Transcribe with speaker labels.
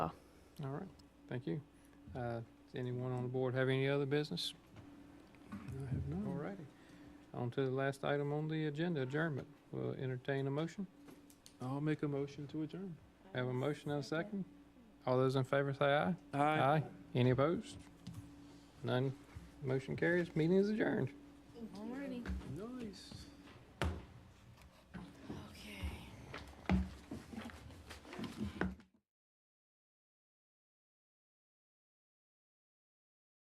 Speaker 1: All right, thank you. Uh, Does anyone on the board have any other business?
Speaker 2: I have none.
Speaker 1: All righty. On to the last item on the agenda, adjournment. We'll entertain a motion.
Speaker 2: I'll make a motion to adjourn.
Speaker 1: Have a motion and a second. All those in favor say aye.
Speaker 2: Aye.
Speaker 1: Any opposed? None. Motion carries. Meeting is adjourned.
Speaker 3: Alrighty.